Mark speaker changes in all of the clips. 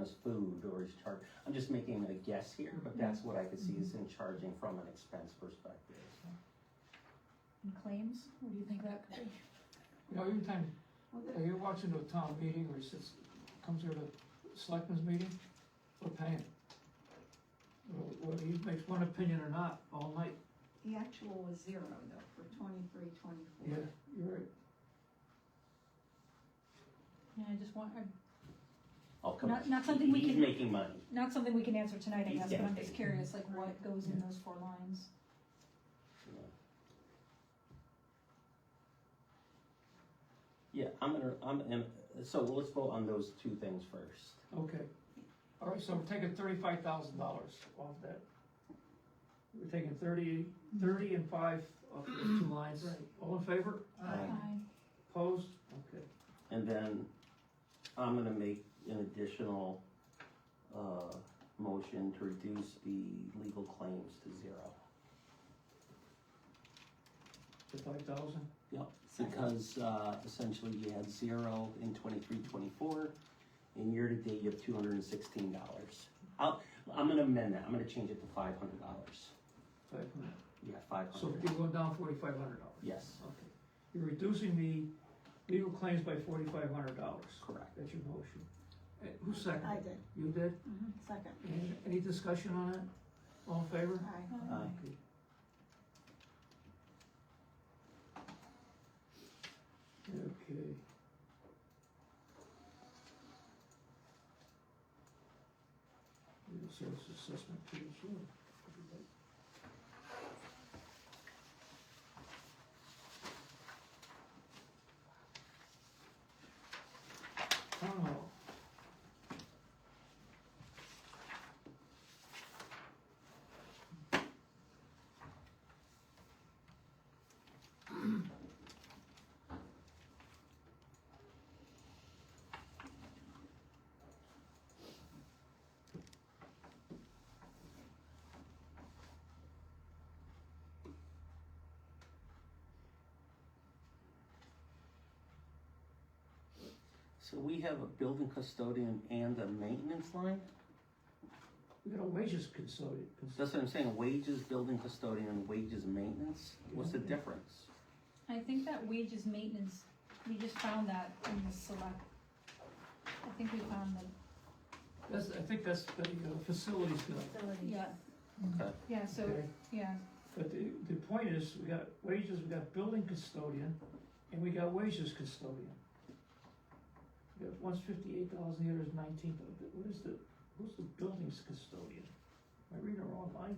Speaker 1: is food or is charged, I'm just making a guess here, but that's what I could see is in charging from an expense perspective.
Speaker 2: And claims, what do you think that could be?
Speaker 3: You know, every time, if you're watching a town meeting or sits, comes here to selectmen's meeting, we're paying. Wh- Whether he makes one opinion or not, all night,
Speaker 4: The actual was zero though, for twenty-three,
Speaker 3: yeah,
Speaker 4: twenty-four.
Speaker 3: you're right.
Speaker 2: Yeah, I just want, I'm-
Speaker 1: Oh, come
Speaker 2: Not-
Speaker 1: on.
Speaker 2: not something we
Speaker 1: He's
Speaker 2: can-
Speaker 1: making money.
Speaker 2: not something we can answer tonight, I guess, but I'm just
Speaker 1: Yeah.
Speaker 2: curious, like what goes in those four lines?
Speaker 1: Yeah, I'm gonna, I'm, and, so let's vote on those two things first.
Speaker 3: Okay. All right, so we're taking thirty-five thousand dollars off that. We're taking thirty, thirty and five off those two lines.
Speaker 4: Right.
Speaker 3: All in favor?
Speaker 1: Aye.
Speaker 2: Aye.
Speaker 3: Opposed? Okay.
Speaker 1: Um, And then I'm gonna make an additional, uh, motion to reduce the legal claims to zero.
Speaker 3: The five thousand?
Speaker 1: Yep, because, uh, essentially you had zero in twenty-three, twenty-four, and year-to-date you have two hundred and sixteen dollars. I'll, I'm gonna amend that, I'm gonna change it to five hundred dollars.
Speaker 3: Five hundred.
Speaker 1: Yeah, five
Speaker 3: So
Speaker 1: hundred,
Speaker 3: you're going down forty-five hundred dollars?
Speaker 1: yes,
Speaker 3: Okay. You're reducing the legal claims by forty-five hundred dollars.
Speaker 1: correct.
Speaker 3: That's your motion. Uh, Who seconded?
Speaker 4: I did,
Speaker 3: You did?
Speaker 4: Mhm. second.
Speaker 3: Any- Any discussion on that? All in favor?
Speaker 4: Aye.
Speaker 1: Aye.
Speaker 3: Okay. Okay. Legal service assessment, pretty sure. Town hall.
Speaker 1: So we have a building custodian and a maintenance line?
Speaker 3: We got a wages consultant.
Speaker 1: That's what I'm saying, wages, building custodian, and wages, maintenance? What's the
Speaker 3: Yeah.
Speaker 1: difference?
Speaker 2: I think that wages maintenance, we just found that in the select. I think we found the,
Speaker 3: That's, I think that's the uh, facilities guy.
Speaker 4: Facilities.
Speaker 2: yeah,
Speaker 1: Okay,
Speaker 2: yeah, so,
Speaker 3: Okay.
Speaker 2: yeah,
Speaker 3: But the, the point is, we got wages, we got building custodian, and we got wages custodian. We got one's fifty-eight thousand, the other's nineteen, but what is the, who's the buildings custodian? Am I reading it wrong line?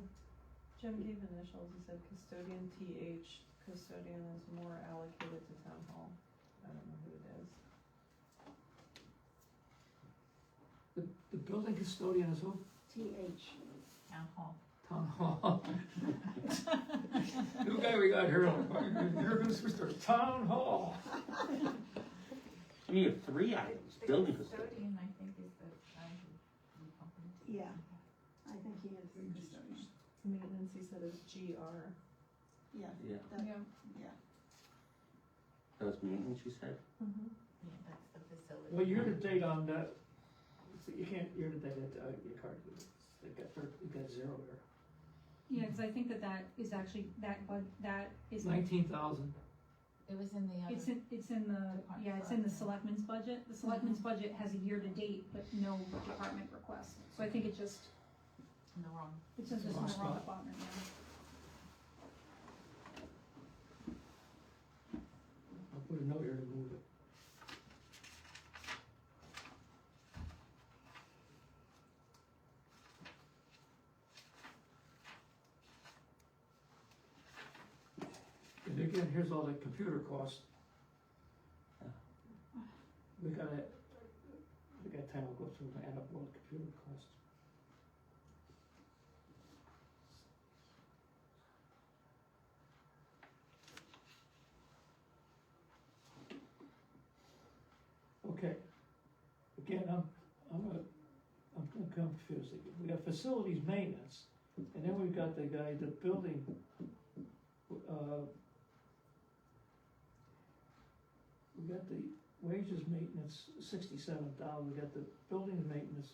Speaker 5: Jim gave initials, he said custodian TH, custodian is more allocated to town hall. I don't know who it is.
Speaker 3: The, the building custodian is who?
Speaker 4: TH.
Speaker 2: town hall.
Speaker 3: Town hall. New guy we got here, you're gonna switch to town hall.
Speaker 1: I mean, you have three items, building custodian.
Speaker 6: custodian, I think, is the guy who we bump into.
Speaker 4: Yeah, I think he is the custodian.
Speaker 5: Mm-hmm. Maintenance, he said is GR.
Speaker 4: Yeah,
Speaker 1: Yeah,
Speaker 2: Yeah, Mm-hmm.
Speaker 4: yeah.
Speaker 1: that's maintenance, you said?
Speaker 2: Hmm.
Speaker 6: Yeah, that's the facility.
Speaker 3: Well, year to date on that, see, you can't, year to date, uh, your card, you got, thir- you got zero there.
Speaker 2: yeah, cause I think that that is actually, that, but that is,
Speaker 3: Nineteen thousand.
Speaker 6: It was in the um, other.
Speaker 2: it's in, it's in the, yeah, it's in the selectmen's budget. Mm-hmm. The selectmen's budget has a year-to-date, but no department request, so I think it just,
Speaker 6: in the wrong.
Speaker 2: it's just in the
Speaker 3: Wrong
Speaker 2: wrong
Speaker 3: spot.
Speaker 2: department, yeah.
Speaker 3: I'll put a note here to move it. And again, here's all the computer costs. We gotta, we got time, we'll go through and add up all the computer costs. Okay. Again, I'm, I'm, a- I'm I'm confused again. We got facilities maintenance, and then we've got the guy, the building, uh, we got the wages maintenance, sixty-seven thousand, we got the building maintenance,